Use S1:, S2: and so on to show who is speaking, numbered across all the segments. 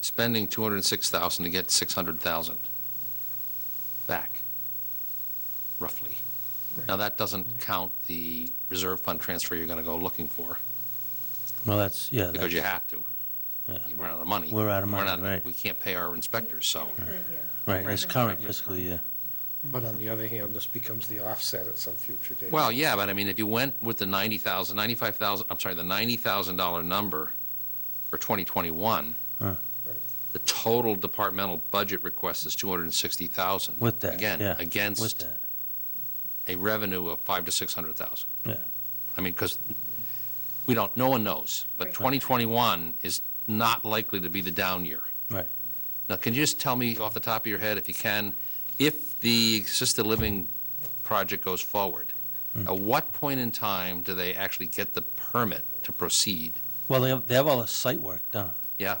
S1: spending 206,000 to get 600,000 back, roughly. Now, that doesn't count the reserve fund transfer you're going to go looking for,
S2: Well, that's, yeah.
S1: because you
S2: that's-
S1: have to.
S2: Yeah.
S1: You run out of money.
S2: We're out of
S1: We're not-
S2: money, right.
S1: We can't pay our inspectors, so.
S2: Right, it's current fiscal year.
S3: But on the other hand, this becomes the offset at some future date.
S1: Well, yeah, but I mean, if you went with the 90,000, 95,000, I'm sorry, the $90,000 number for 2021,
S2: Huh.
S1: the total departmental budget request is 260,000.
S2: With that,
S1: Again,
S2: yeah, With
S1: against
S2: that,
S1: a revenue of five to 600,000.
S2: Yeah.
S1: I mean, because we don't, no one knows, but
S4: Right.
S1: 2021 is not likely to be the down year.
S2: Right.
S1: Now, can you just tell me off the top of your head, if you can, if the assisted living project goes forward,
S2: Hmm.
S1: at what point in time do they actually get the permit to proceed?
S2: Well, they have, they have all the site work done.
S1: Yeah.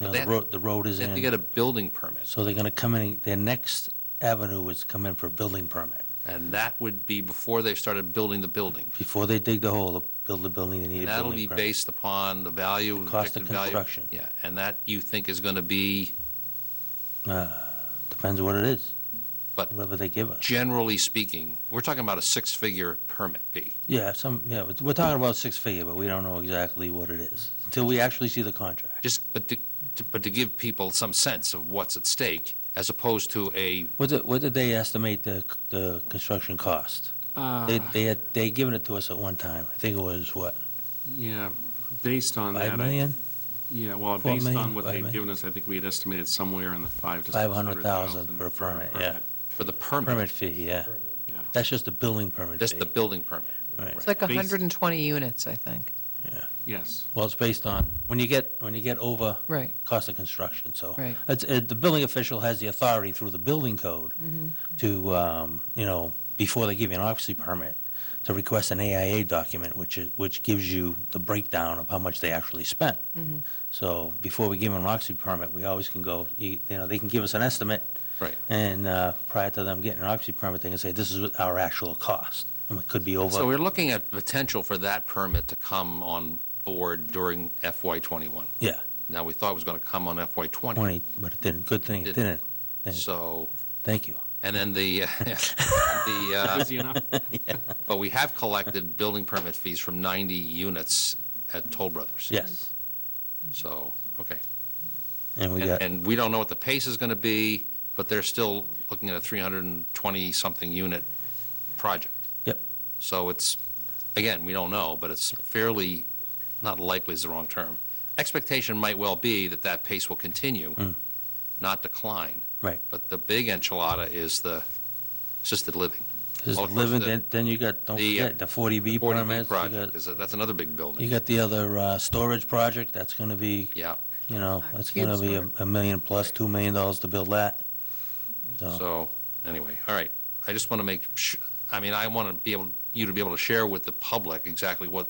S2: You know,
S1: They
S2: the
S1: have-
S2: road, the road is
S1: They have to get
S2: in.
S1: a building permit,
S2: So they're going to come in, their next avenue is come in for a building permit.
S1: and that would be before they've started building the building.
S2: Before they dig the hole, they build the building, they need
S1: And
S2: a
S1: that'll
S2: building
S1: be
S2: permit.
S1: based upon the value,
S2: The
S1: the
S2: cost of
S1: projected value.
S2: construction.
S1: Yeah, and that you think is going to be,
S2: Uh, Depends what it is.
S1: But-
S2: Whatever they give us.
S1: generally speaking, we're talking about a six-figure permit fee.
S2: Yeah, some, yeah, we're- we're talking about six figure, but we don't know exactly what it is until we actually see the contract.
S1: Just, but to, to- but to give people some sense of what's at stake, as opposed to a
S2: What did, what did they estimate the, the construction cost? They, they had, they given it to us at one time. I think it was, what,
S5: Yeah, based on that. I-
S2: 5 million?
S5: Yeah, well,
S2: Four
S5: based
S2: million,
S5: on what
S2: five
S5: they've
S2: million.
S5: given us, I think we had estimated somewhere in the five to.
S2: 500,000
S5: 600,000
S2: for a permit, yeah.
S1: For the permit?
S2: Permit fee, yeah.
S5: Yeah.
S2: That's just the building permit
S1: Just the
S2: fee.
S1: building permit?
S2: Right.
S4: It's like
S5: Based-
S4: 120 units, I think.
S5: Yes,
S2: Well, it's based on, when you get, when you get over
S4: Right,
S2: cost of construction, so.
S4: Right.
S2: It's, it, the building official has the authority through the building code to, um, you know, before they give you an occupancy permit, to request an AIA document, which is, which gives you the breakdown of how much they actually spent. So before we give them an occupancy permit, we always can go, you you know, they can give us an estimate.
S1: Right.
S2: And, uh, prior to them getting an occupancy permit, they can say, this is what our actual cost, and it could be over.
S1: So we're looking at the potential for that permit to come on board during FY '21.
S2: Yeah.
S1: Now, we thought it was going to come on FY '20,
S2: 20, but it didn't, good thing it
S1: Didn't.
S2: didn't. Thank-
S1: so,
S2: Thank you.
S1: and then the, the, uh,
S5: busy enough.
S1: but we have collected building permit fees from 90 units at Toll Brothers.
S2: Yes.
S1: So, okay.
S2: And we
S1: And
S2: got,
S1: and we don't know what the pace is going to be, but they're still looking at a 320-something unit project.
S2: Yep.
S1: So it's, again, we don't know, but it's fairly, not likely is the wrong term. Expectation might well be that that pace will continue,
S2: Mm.
S1: not decline.
S2: Right.
S1: But the big enchilada is the assisted living.
S2: just
S1: Well, of course,
S2: living,
S1: the-
S2: then, then you got, don't
S1: the, uh,
S2: forget, the
S1: 40B
S2: 40B permits. you
S1: project,
S2: got-
S1: is a- that's another big
S2: You
S1: building.
S2: got the other, uh, storage project, that's gonna be,
S1: Yeah,
S2: you know,
S4: Our
S2: that's
S4: cube
S2: gonna be a,
S4: store.
S2: a million plus,
S1: Right.
S2: two million dollars to build that. So,
S1: so, anyway, all right. I just want to make, su- I mean, I want to be able, you to be able to share with the public exactly what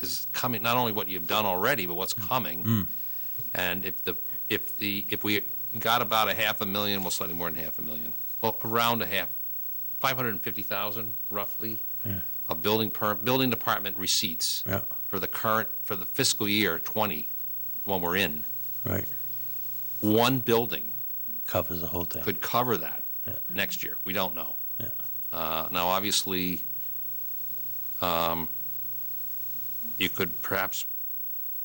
S1: is coming, not only what you've done already, but what's coming.
S2: Mm.
S1: And if the, if the, if we got about a half a million, well, slightly more than half a million, well, around a half, 550,000 roughly,
S2: Yeah.
S1: of building per, building department receipts
S2: yeah,
S1: for the current, for the fiscal year 20, the one we're in.
S2: right,
S1: One building
S2: covers the whole thing.
S1: could cover that
S2: Yeah.
S1: next year. We don't know.
S2: Yeah.
S1: Uh, Now, obviously, um, you could perhaps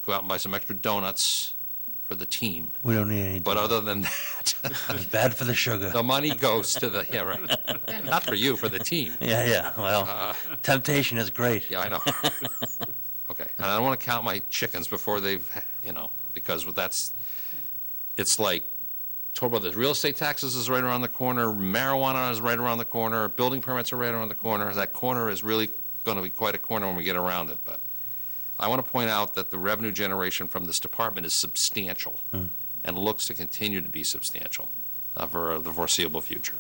S1: go out and buy some extra donuts for the team,
S2: We don't need any.
S1: but
S2: dollars.
S1: other than that,
S2: It's Bad for the sugar.
S1: The money goes to the, yeah, right. Not for you, for the team.
S2: Yeah, yeah, well, temptation is great.
S1: Uh, Yeah, I know. Okay, and I don't want to count my chickens before they've, you know, because that's, it's like, Toll Brothers, real estate taxes is right around the corner, marijuana is right around the corner, building permits are right around the corner. That corner is really going to be quite a corner when we get around it, but I want to point out that the revenue generation from this department is substantial
S2: Hmm.
S1: and looks to continue to be substantial uh, for the foreseeable future.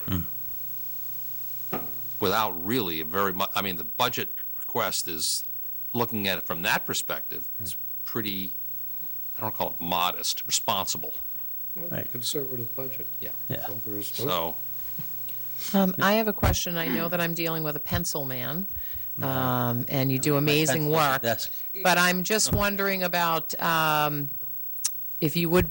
S1: Without really a very much, I mean, the budget request is, looking at it from that perspective, it's pretty, I don't call it modest, responsible.
S2: Right.
S3: Conservative budget.
S1: Yeah.
S2: Yeah.
S3: So there is-
S1: So,
S4: Um, I have a question. I know that I'm dealing with a pencil man, um, and you do amazing
S2: Pencil at the
S4: work,
S2: Desk.
S4: but I'm just wondering about um, if you would